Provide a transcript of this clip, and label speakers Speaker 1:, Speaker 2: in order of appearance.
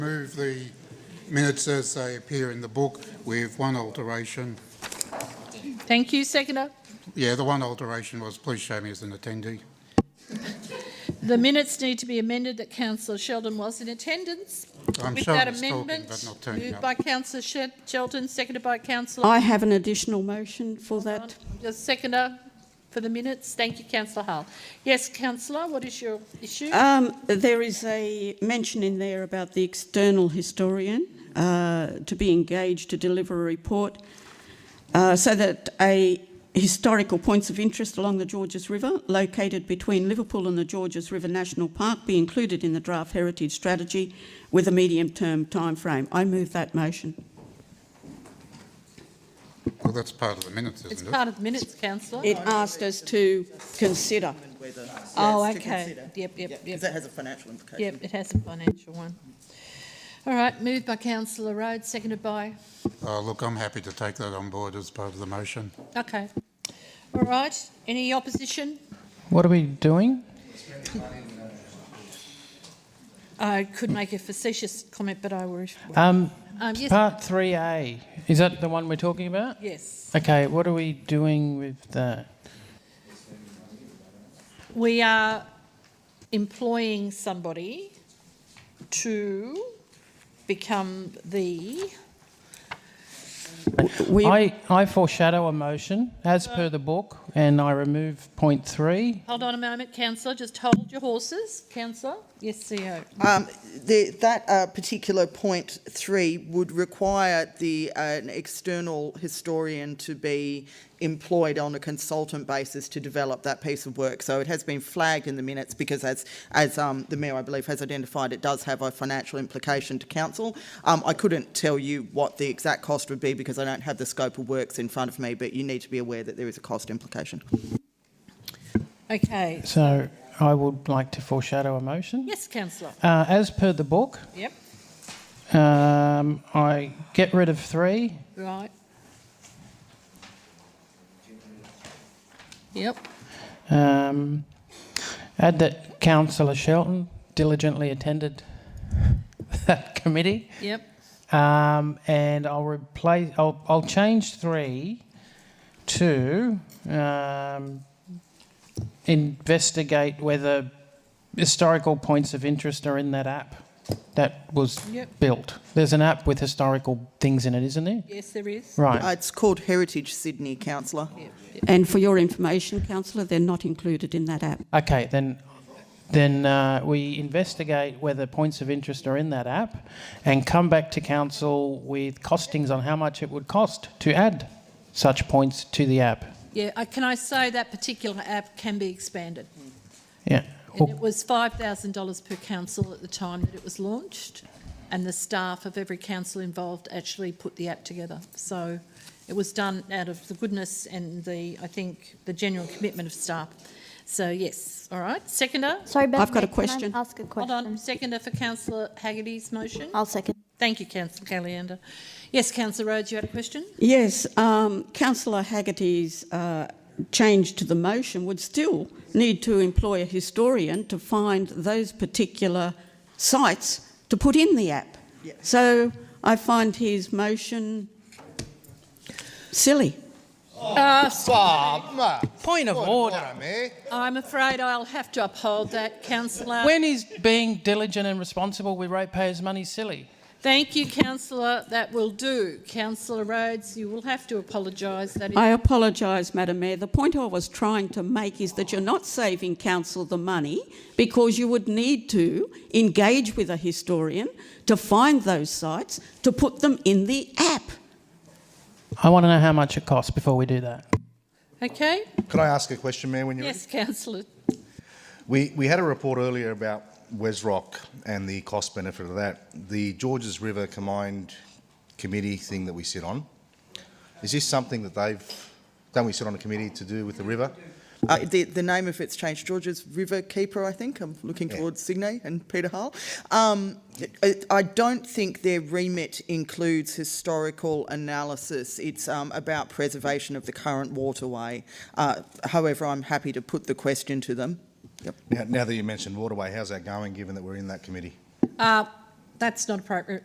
Speaker 1: Move the minutes as they appear in the book with one alteration.
Speaker 2: Thank you, seconder.
Speaker 1: Yeah, the one alteration was, please show me as an attendee.
Speaker 2: The minutes need to be amended that councillor Sheldon was in attendance.
Speaker 1: I'm
Speaker 2: With
Speaker 1: sure
Speaker 2: that
Speaker 1: he's talking, but
Speaker 2: amendment,
Speaker 1: not turning
Speaker 2: moved
Speaker 1: up.
Speaker 2: by councillor Shed- Sheldon, seconded by councillor
Speaker 3: I have an additional motion for that.
Speaker 2: The seconder for the minutes. Thank you, councillor Hull. Yes, councillor, what is your issue?
Speaker 3: Um, there is a mention in there about the external historian uh, to be engaged to deliver a report uh, so that a historical points of interest along the Georges River, located between Liverpool and the Georges River National Park, be included in the draft heritage strategy with a medium-term timeframe. I move that motion.
Speaker 1: Well, that's part of the minutes,
Speaker 2: It's
Speaker 1: isn't it?
Speaker 2: part of the minutes, councillor.
Speaker 3: It asked us to consider.
Speaker 4: determine whether-
Speaker 2: Oh,
Speaker 4: yes, to
Speaker 2: okay.
Speaker 4: consider.
Speaker 2: Yep, yep,
Speaker 4: Yeah, 'cause
Speaker 2: yep.
Speaker 4: that has a financial implication.
Speaker 2: Yep, it has a financial one. All right, moved by councillor Rhodes, seconded by,
Speaker 1: Oh, look, I'm happy to take that on board as part of the motion.
Speaker 2: okay. All right, any opposition?
Speaker 5: What are we doing?
Speaker 2: I could make a facetious comment, but I will.
Speaker 5: Um,
Speaker 2: Um, yes,
Speaker 5: part 3A. Is that the one we're talking about?
Speaker 2: yes.
Speaker 5: Okay, what are we doing with that?
Speaker 2: We are employing somebody to become the,
Speaker 3: We,
Speaker 5: I, I foreshadow a motion as per the book and I remove point three.
Speaker 2: hold on a moment, councillor, just hold your horses, councillor. Yes, E CEO.
Speaker 4: Um, the, that uh, particular point three would require the uh, an external historian to be employed on a consultant basis to develop that piece of work. So it has been flagged in the minutes because, as as um, the mayor I believe has identified, it does have a financial implication to council. Um, I couldn't tell you what the exact cost would be because I don't have the scope of works in front of me, but you need to be aware that there is a cost implication.
Speaker 2: Okay,
Speaker 5: So I would like to foreshadow a motion.
Speaker 2: yes, councillor,
Speaker 5: Uh, as per the book,
Speaker 2: yep,
Speaker 5: um, I get rid of three.
Speaker 2: right. Yep,
Speaker 5: Um, add that councillor Shelton diligently attended that committee.
Speaker 2: yep,
Speaker 5: Um, and I'll replace. I'll, I'll change three to um, investigate whether historical points of interest are in that app that was
Speaker 2: Yep.
Speaker 5: built. There's an app with historical things in it, isn't there?
Speaker 2: yes, there is.
Speaker 5: Right.
Speaker 4: Uh, it's called Heritage Sydney, councillor.
Speaker 3: and for your information, councillor, they're not included in that app.
Speaker 5: Okay, then, then uh, we investigate whether points of interest are in that app, and come back to council with costings on how much it would cost to add such points to the app.
Speaker 2: Yeah, uh, can I say that particular app can be expanded?
Speaker 5: Yeah.
Speaker 2: And it was five thousand dollars per council at the time that it was launched, and the staff of every council involved actually put the app together. So it was done out of the goodness and the, I think, the general commitment of staff. So yes, all right. Seconder,
Speaker 6: Sorry, Beth.
Speaker 3: I've got a
Speaker 6: can I
Speaker 3: question.
Speaker 6: Ask a
Speaker 2: hold on.
Speaker 6: question.
Speaker 2: Seconder for councillor Haggerty's motion.
Speaker 6: I'll second.
Speaker 2: Thank you, councillor Caliander. Yes, councillor Rhodes, you had a question?
Speaker 3: Yes, um, councillor Haggerty's uh, change to the motion would still need to employ a historian to find those particular sites to put in the app. So I find his motion silly.
Speaker 5: Point of order.
Speaker 2: I'm afraid I'll have to uphold that, councillor.
Speaker 5: When is being diligent and responsible with ratepayers' money silly?
Speaker 2: Thank you, councillor. That will do. Councillor Rhodes, you will have to apologise. That is
Speaker 3: I apologise, Madam Mayor. The point I was trying to make is that you're not saving council the money because you would need to engage with a historian to find those sites to put them in the app.
Speaker 5: I want to know how much it costs before we do that.
Speaker 2: Okay,
Speaker 7: Could I ask a question, Mayor? When you
Speaker 2: yes, councillor.
Speaker 7: we we had a report earlier about Wes Rock and the cost benefit of that. The Georges River Combined Committee thing that we sit on is this something that they've don't we sit on a committee to do with the river?
Speaker 4: Uh, the, the name of it's changed. George's River Keeper, I think. I'm looking
Speaker 7: Yeah.
Speaker 4: towards Sydney and Peter Hull. Um, I, I don't think their remit includes historical analysis. It's um, about preservation of the current waterway. Uh, however, I'm happy to put the question to them.
Speaker 7: Now, now that you mentioned waterway, how's that going? Given that we're in that committee,
Speaker 2: Uh, that's not appropriate